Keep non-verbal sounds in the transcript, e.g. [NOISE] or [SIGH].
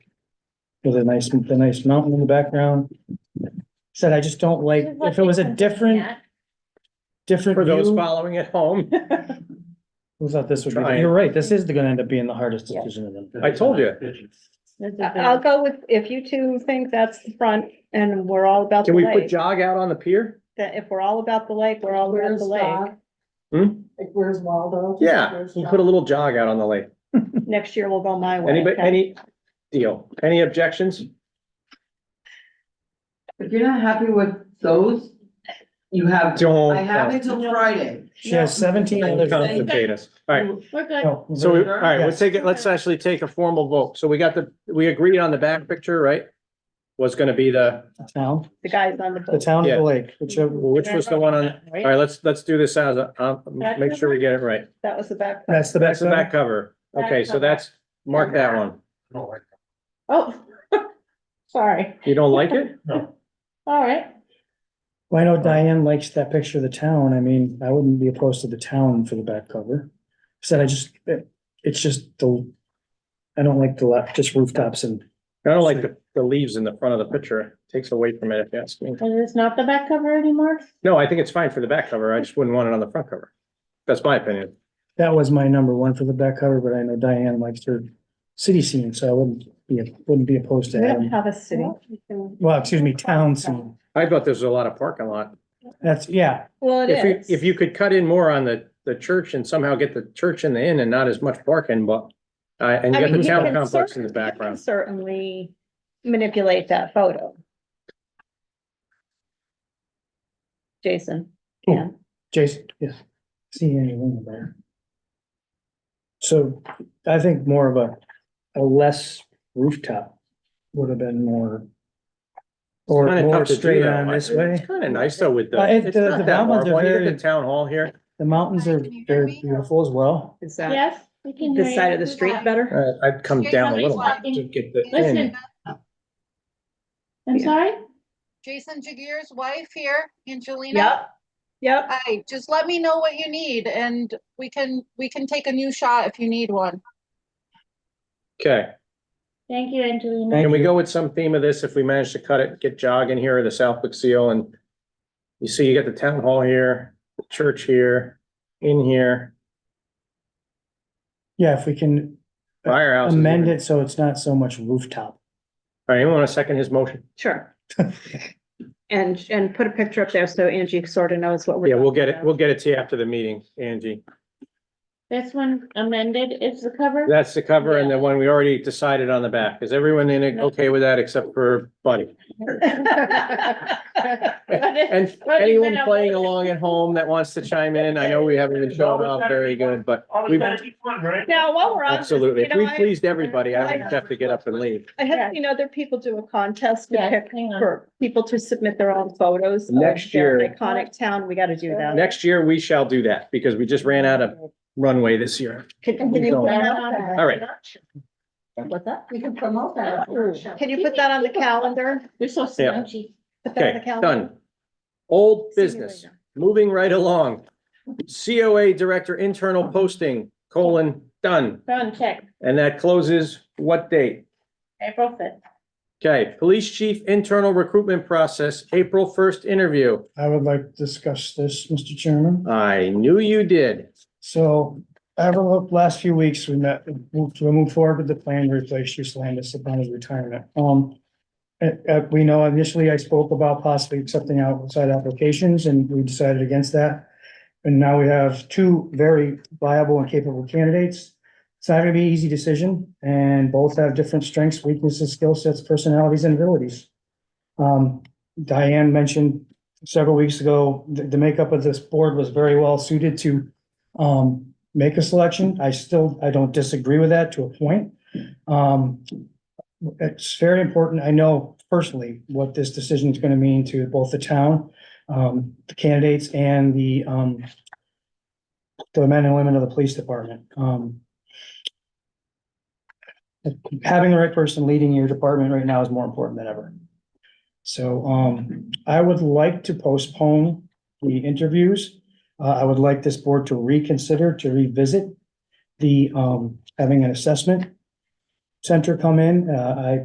with a nice, the nice mountain in the background. Said, I just don't like, if it was a different, different For those view. following at home, Who thought this would be, the- Trying. you're right, this is gonna end up being the hardest Yeah. decision of them. I told you. Uh, I- I'll go with, if you two think that's the front and we're all about the Can we put lake, jog out on the pier? that if we're all about the lake, we're all about Where's the Doc? lake. Hmm? Like, where's Waldo? Yeah, Where's You can Doc? put a little jog out on the lake. Next year we'll go my way. Anybody, any deal? Any objections? If you're not happy with those, you have, Don't. I have until Friday. She has seventeen Don't other. complicate us. All right, We're good. No, so, we- all right, Yeah. let's take it, let's actually take a formal vote. So we got the, we agreed on the back picture, right? Was gonna be the, the Town, The guys on the the boat. town of Yeah. the lake, which, uh, which was the one on, all right, let's, let's do this as, a- um, make sure we get it right. That was the back. that's the That's best. the back cover. Okay, so that's, mark that one. Oh, [LAUGHS] sorry. You don't like it? All right. Well, I know Diane likes that picture of the town. I mean, I wouldn't be opposed to the town for the back cover. Said I just, it- it's just the, I don't like the left, just rooftops and I don't like the, the leaves in the front of the picture. Takes away from it if you ask me. And it's not the back cover anymore? No, I think it's fine for the back cover. I just wouldn't want it on the front cover. That's my opinion. that was my number one for the back cover, but I know Diane likes her city scene, so I wouldn't be, wouldn't be opposed to We don't having, have a city. well, excuse me, town scene. I thought there's a lot of parking lot. That's, yeah, Well, it If is. you, if you could cut in more on the, the church and somehow get the church in the inn and not as much parking, but uh, and I you got mean, the you town can complex in certainly- the you can background. Certainly manipulate that photo. Jason, Jason, yeah, see anything there. So I think more of a, a less rooftop would have been more. Or Kinda more tough to do straight that on way. this way. It's kind of nice though with Uh, the, it- it's the- not the that mountains are horrible. You get very- the town hall here. The mountains are, Can you hear they're me? beautiful as well. Is that Yes, we can hear this side you. of the street better? Uh, I'd come Here's down a somebody's little bit walking. to get the Listen. inn. I'm Yeah. sorry? Jason Jagir's wife here, Angelina. yep, yep, Hi, just let me know what you need and we can, we can take a new shot if you need one. Okay. Thank you, Angelina. Thank Can we you. go with some theme of this if we manage to cut it, get jog in here, the Southwick seal and you see you got the town hall here, church here, in here, Yeah, if we can firehouse. amend it so it's not so much rooftop. All right, anyone want to second his motion? [LAUGHS] sure. And, and put a picture up there so Angie sort of knows what we're. Yeah, we'll get [LAUGHS] it, [LAUGHS] talking we'll get it to you after the meeting, Angie. This one amended is the cover? That's the cover and the one we already decided on the back. Is everyone in it okay with that except for Buddy? [LAUGHS] And anyone playing along at home that wants to chime in, I know we haven't been showing off very good, but we've Now, while we're on. this, absolutely, you if know, we I- pleased everybody, I would have to get up and leave. I have seen other people do a contest to Yeah, pick hang on. for people to submit their own photos. of Next their year- Iconic town, we gotta do that. Next year, we shall do that because we just ran out of runway this year. Can can we you go. put that on- All All right. What's that? We can promote that. can you put that on the calendar? You're so Yeah. slouchy. Put that on the Okay, calendar? done. Old See you business, later. moving right along. COA Director Internal Posting, colon, done. Phone check, And that closes what date? April fifth. Okay, Police Chief Internal Recruitment Process, April first interview. I would like to discuss this, Mr. Chairman. I knew you did. So over the last few weeks, we met, moved to move forward with the plan to replace Bruce Landis upon his retirement. Um, uh, uh, we know initially I spoke about possibly accepting outside applications and we decided against that. And now we have two very viable and capable candidates. It's not gonna be an easy decision and both have different strengths, weaknesses, skill sets, personalities and abilities. Um, Diane mentioned several weeks ago, the, the makeup of this board was very well suited to um, make a selection. I still, I don't disagree with that to a point. Um, it's very important. I know personally what this decision is going to mean to both the town, um, the candidates and the, um, the men and women of the police department. Um, having the right person leading your department right now is more important than ever. So, um, I would like to postpone the interviews uh, I would like this board to reconsider, to revisit the, um, having an assessment center come in. Uh, I